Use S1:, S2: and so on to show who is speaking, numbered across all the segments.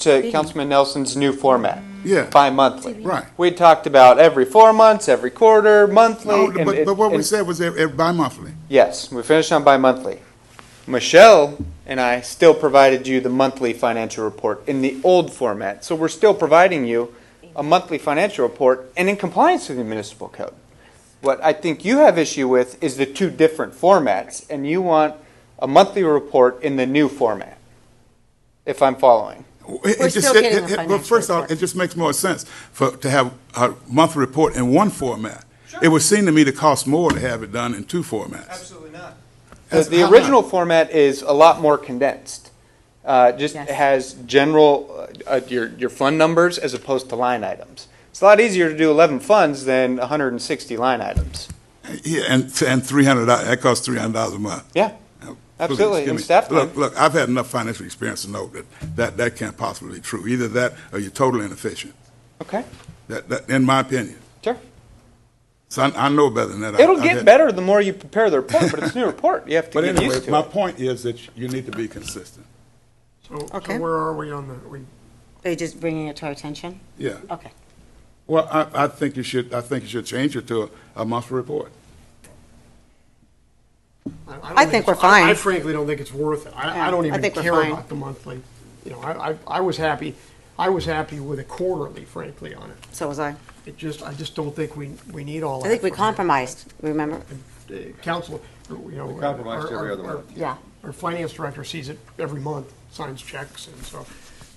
S1: to Councilman Nelson's new format,
S2: Yeah,
S1: bi-monthly.
S2: right.
S1: We talked about every four months, every quarter, monthly.
S2: No,
S1: and
S2: but,
S1: it-
S2: but what we
S1: and-
S2: said was every, bi-monthly.
S1: Yes, we finished on bi-monthly. Michelle and I still provided you the monthly financial report in the old format. So we're still providing you a monthly financial report and in compliance with the municipal code. What I think you have issue with is the two different formats and you want a monthly report in the new format, if I'm following.
S2: It- it
S3: We're
S2: just-
S3: still
S2: it-
S3: getting
S2: it-
S3: the
S2: it- But
S3: financial
S2: first off,
S3: report.
S2: it just makes more sense for, to have a monthly report in one format. It would seem to me to cost more to have it done in two formats.
S1: Absolutely not. The,
S2: That's-
S1: the
S2: how come?
S1: original format is a lot more condensed. Uh, just
S3: Yes.
S1: has general, uh, uh, your, your fund numbers as opposed to line items. It's a lot easier to do 11 funds than 160 line items.
S2: Yeah, and, and three hundred, that costs three hundred dollars a month.
S1: Yeah,
S2: Now,
S1: Absolutely,
S2: please,
S1: and
S2: give me-
S1: staff
S2: Look,
S1: time.
S2: look, I've had enough financial experience to know that, that, that can't possibly be true. Either that or you're totally inefficient.
S1: okay,
S2: That, that, in my opinion.
S1: sure.
S2: So I, I know better than that. I-
S1: It'll
S2: I've
S1: get
S2: had-
S1: better the more you prepare the report, but it's a new report. You have to
S2: Uh, But
S1: get
S2: anyway,
S1: used to
S2: my
S1: it.
S2: point is that you need to be consistent.
S4: So,
S3: Okay.
S4: so where are we on that? We,
S3: They just bringing it to our attention?
S2: Yeah.
S3: Okay.
S2: Well, I, I think you should, I think you should change it to a, a monthly report.
S4: I- don't
S3: I think
S4: it's-
S3: we're fine.
S4: I frankly don't think it's worth it. I,
S3: Yeah,
S4: I don't
S3: I
S4: even
S3: think we're
S4: care
S3: fine.
S4: about the monthly. You know, I, I, I was happy, I was happy with a quarterly frankly on it.
S3: So was I.
S4: It just, I just don't think we, we need all
S3: I
S4: that.
S3: think we
S4: for-
S3: compromised, remember?
S4: uh, Council, you know. We
S5: compromised every other month.
S3: Yeah.
S4: Our finance director sees it every month, signs checks, and so,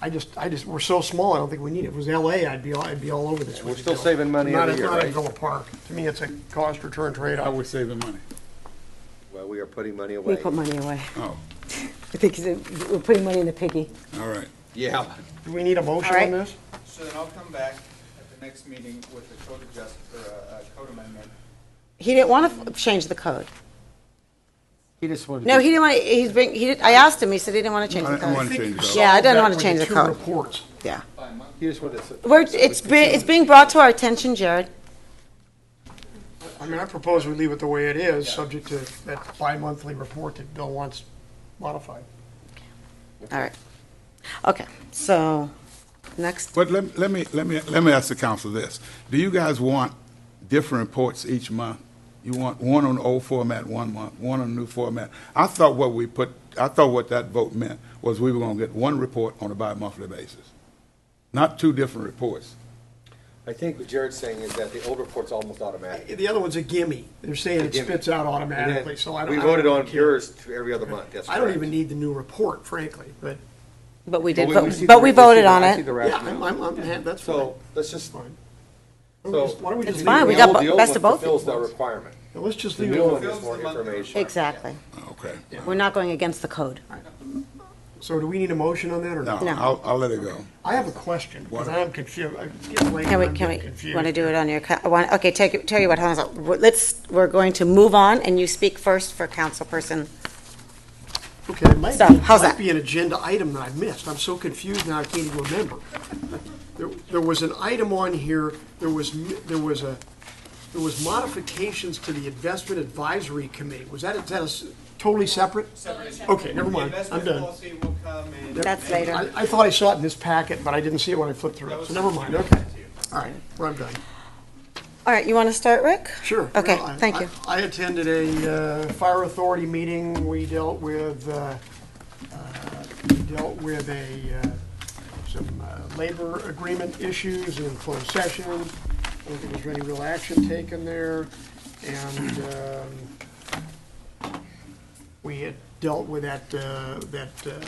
S4: I just, I just, we're so small, I don't think we need it. If it was LA, I'd be, all- I'd be all over this.
S5: We're
S4: with it,
S5: still
S4: though.
S5: saving money
S4: Not
S5: every
S4: a-
S5: year,
S4: Not a
S5: right?
S4: Villa Park. To me, it's a cost return
S2: How
S4: trade-off.
S2: we saving money?
S5: Well, we are putting money
S3: We
S5: away.
S3: put money away.
S2: Oh,
S3: I think it's- we're putting money in the piggy.
S2: all right.
S5: Yeah.
S4: Do we need a motion
S3: All right.
S4: on this?
S1: So then I'll come back at the next meeting with a code adjust, or a code amendment.
S3: He didn't want to change the code.
S5: He just wanted.
S3: No, he didn't want, to. he's bring, he did, I asked him, he said he didn't want to change
S2: I
S3: the
S2: don't want
S3: code.
S2: to change that.
S3: Yeah, I didn't
S4: That
S3: want to
S4: with
S3: change the
S4: two
S3: code.
S4: reports.
S3: Yeah.
S5: He just wanted. to-
S3: We're, it's been, it's being brought to our attention, Jared.
S4: I mean, I propose we leave it the way it is, subject to that bi-monthly report that Bill wants modified.
S3: All right. Okay, so, next,
S2: But let, let me, let me, let me ask the council this. Do you guys want different reports each month? You want one on the old format one month, one on the new format? I thought what we put, I thought what that vote meant was we were gonna get one report on a bi-monthly basis, not two different reports.
S5: I think what Jared's saying is that the old report's almost automatic.
S4: The other one's a gimme. They're saying it
S5: gimme.
S4: spits out automatically, so I don't.
S5: We
S4: I don't
S5: voted on
S4: care.
S5: yours to every other month, that's
S4: I don't
S5: correct.
S4: even need the new report, frankly, but,
S3: but we
S5: But
S3: did,
S5: we- we
S3: vote-
S5: see
S3: but
S5: the-
S3: we
S5: see the-
S3: voted on
S5: I see
S3: it.
S5: the
S4: yeah, I'm,
S5: rationale.
S4: I'm, I'm- that's fine.
S5: So, let's just.
S4: Fine. Why don't we
S5: So.
S4: just- why don't we just
S3: It's
S4: leave
S3: fine,
S4: it?
S3: we
S5: the
S3: got
S5: old-
S3: bo-
S5: the old
S3: best
S5: one
S3: of both
S5: Fulfills that
S3: worlds.
S5: requirement.
S4: Let's just
S5: The
S4: leave
S5: new one
S4: it.
S5: is more information.
S3: Exactly.
S2: Okay.
S3: We're not going against the code.
S4: So do we need a motion on that or
S2: No,
S4: not?
S3: No.
S2: I'll, I'll let it go.
S4: I have a question, because I am confused. It's getting late
S3: Can we,
S4: and I'm
S3: can
S4: getting
S3: we,
S4: confused.
S3: want to do it on your, co- I want- okay, take, it- tell you what, hold on, a sec. We're- let's, we're going to move on, and you speak first for councilperson.
S4: Okay, it might be,
S3: So, how's
S4: might
S3: that?
S4: be an agenda item that I missed. I'm so confused now, I can't even remember. There, there was an item on here, there was, m- there was a, there was modifications to the Investment Advisory Committee. Was that, is that a s- totally separate? Okay, never mind, I'm done.
S1: will come in.
S3: That's later.
S4: I, I thought I saw it in this packet, but I didn't see it when I flipped through it, so never mind, okay. All right, well, I'm done.
S3: All right, you want to start, Rick?
S4: Sure.
S3: Okay,
S4: Well, I-
S3: thank you.
S4: I I attended a uh, fire authority meeting. We dealt with, uh, uh, we dealt with a, uh, some uh, labor agreement issues in closed session. I don't think there was any real action taken there. And um, we had dealt with that, uh, that uh,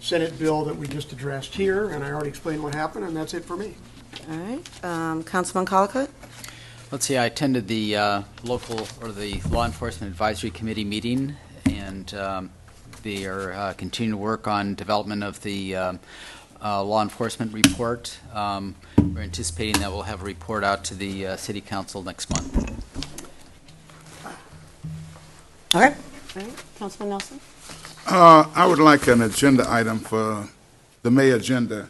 S4: Senate bill that we just addressed here, and I already explained what happened, and that's it for me.
S3: All right, um, Councilman Colacott?
S6: Let's see, I attended the uh, local, or the Law Enforcement Advisory Committee meeting, and um, they are uh, continuing to work on development of the um, uh, law enforcement report. Um, We're anticipating that we'll have a report out to the uh, city council next month.
S3: All right. All right, Councilman Nelson?
S2: Uh, I would like an agenda item for the May agenda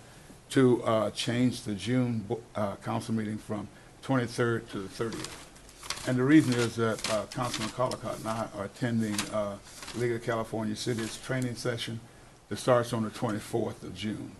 S2: to uh, change the June bo- uh, council meeting from 23rd to the 30th. And the reason is that uh, Councilman Colacott and I are attending uh, League of California Cities training session that starts on the 24th of June.